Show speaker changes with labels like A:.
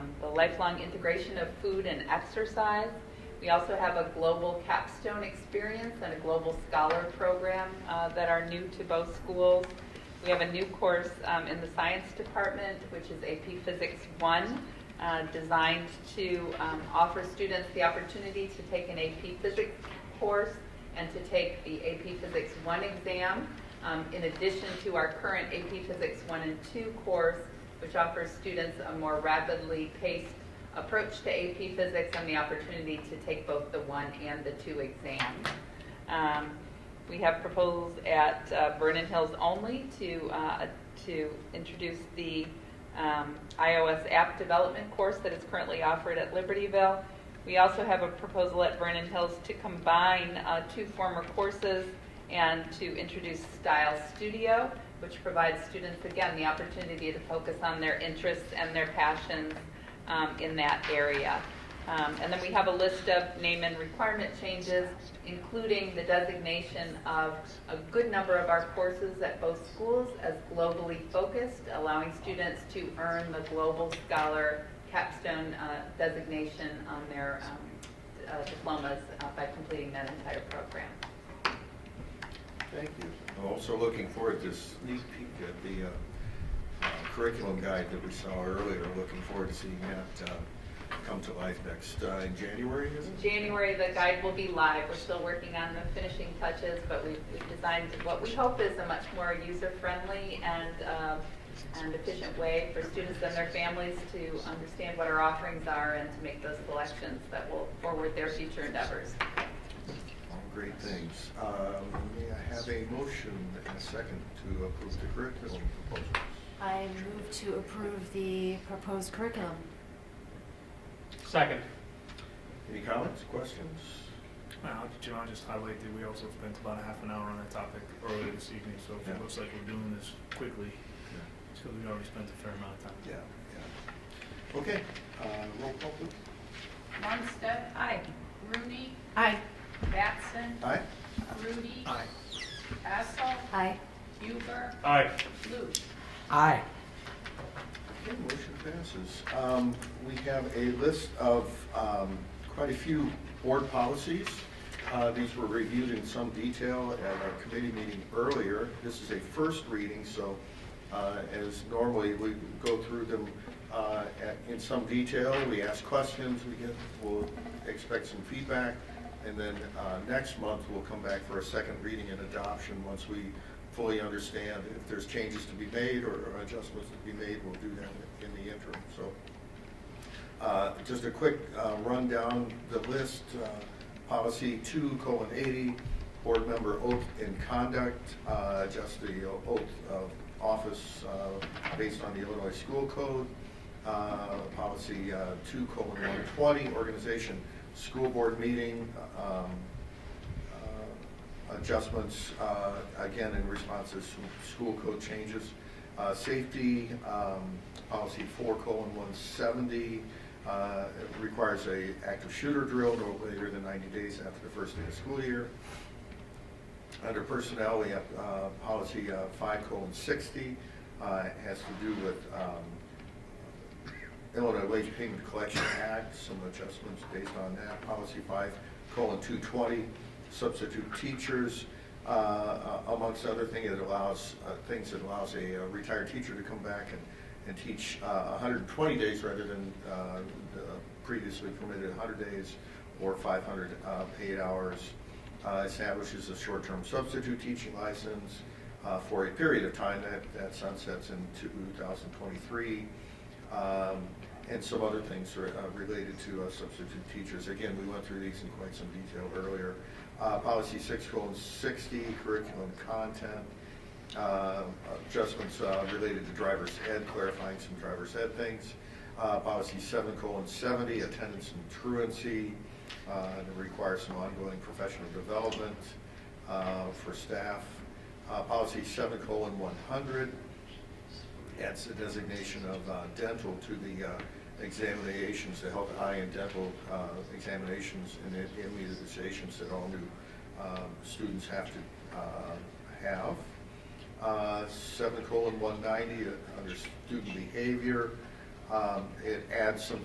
A: lifelong integration of food and exercise. We also have a global capstone experience and a global scholar program uh, that are new to both schools. We have a new course um, in the science department, which is AP Physics 1, uh, designed to um, offer students the opportunity to take an AP Physics course and to take the AP Physics 1 exam, um, in addition to our current AP Physics 1 and 2 course, which offers students a more rapidly paced approach to AP Physics and the opportunity to take both the 1 and the 2 exams. Um, we have proposals at uh, Vernon Hills only to, uh, to introduce the um, iOS app development course that is currently offered at Libertyville. We also have a proposal at Vernon Hills to combine uh, two former courses and to introduce Style Studio, which provides students, again, the opportunity to focus on their interests and their passions um, in that area. Um, And then we have a list of name and requirement changes, including the designation of a good number of our courses at both schools as globally focused, allowing students to earn the Global Scholar capstone uh, designation on their um, uh, diplomas uh, by completing that entire program.
B: Thank you. I'm also looking forward to sneak peek at the uh, uh, curriculum guide that we saw earlier. Looking forward to seeing that uh, come to life next, uh, in January, is
A: In
B: it?
A: January, the guide will be live. We're still working on the finishing touches, but we've we've designed what we hope is a much more user-friendly and, uh, and efficient way for students and their families to understand what our offerings are and to make those selections that will forward their future endeavors.
B: All great things. Um, May I have a motion and a second to approve the curriculum proposals?
C: I move to approve the proposed curriculum.
D: Second.
B: Any comments, questions?
E: Well, John just highlighted, we also spent about a half an hour on that topic earlier this evening, so
B: Yeah.
E: it looks like we're doing this quickly,
B: Yeah,
E: so we already spent a fair amount of time.
B: yeah. yeah. Okay, uh, roll call, please.
F: Lundstedt. Aye. Rooney.
C: Aye.
F: Batson.
B: Aye?
F: Rudy.
B: Aye.
F: Hessel.
C: Aye.
F: Huber.
D: Aye.
F: Luce.
D: Aye.
B: Okay, motion passes. Um, We have a list of um, quite a few board policies. Uh, These were reviewed in some detail at our committee meeting earlier. This is a first reading, so uh, as normally, we go through them uh, at- in some detail. We ask questions, we get, we'll expect some feedback, and then uh, next month, we'll come back for a second reading and adoption once we fully understand if there's changes to be made or adjustments to be made, we'll do that in the interim, so. Uh, Just a quick uh, rundown, the list, uh, policy two colon eighty, board member oath and conduct, uh, just the oath of office uh, based on the Illinois School Code. Uh, Policy uh, two colon one twenty, organization, school board meeting, um, uh, adjustments, uh, again, in response to sch- school code changes. Uh, Safety, um, policy four colon one seventy, uh, requires a active shooter drill no later than ninety days after the first day of school year. Under personnel, we have uh, policy five colon sixty, uh, has to do with um, Illinois Wage Payment Collection Act, some adjustments based on that. Policy five, colon, two twenty, substitute teachers, uh, uh, amongst other things, it allows, uh, things that allows a uh, retired teacher to come back and, and teach uh hundred and twenty days rather than, uh, the previously permitted hundred days or five hundred, uh, paid hours. Uh, establishes a short-term substitute teaching license, uh, for a period of time that, that sunsets in two thousand twenty-three um, and some other things are, uh, related to uh, substitute teachers. Again, we went through these in quite some detail earlier. Uh, Policy six colon sixty, curriculum content, uh, adjustments uh, related to driver's ed, clarifying some driver's ed things. Uh, Policy seven colon seventy, attendance and truancy, uh, and it requires some ongoing professional development uh, for staff. Uh, Policy seven colon one hundred, adds the designation of uh, dental to the uh, examinations, the health, eye, and dental uh, examinations and the immunizations that all new um, students have to uh, have. Uh, Seven colon one ninety, under student behavior, um, it adds some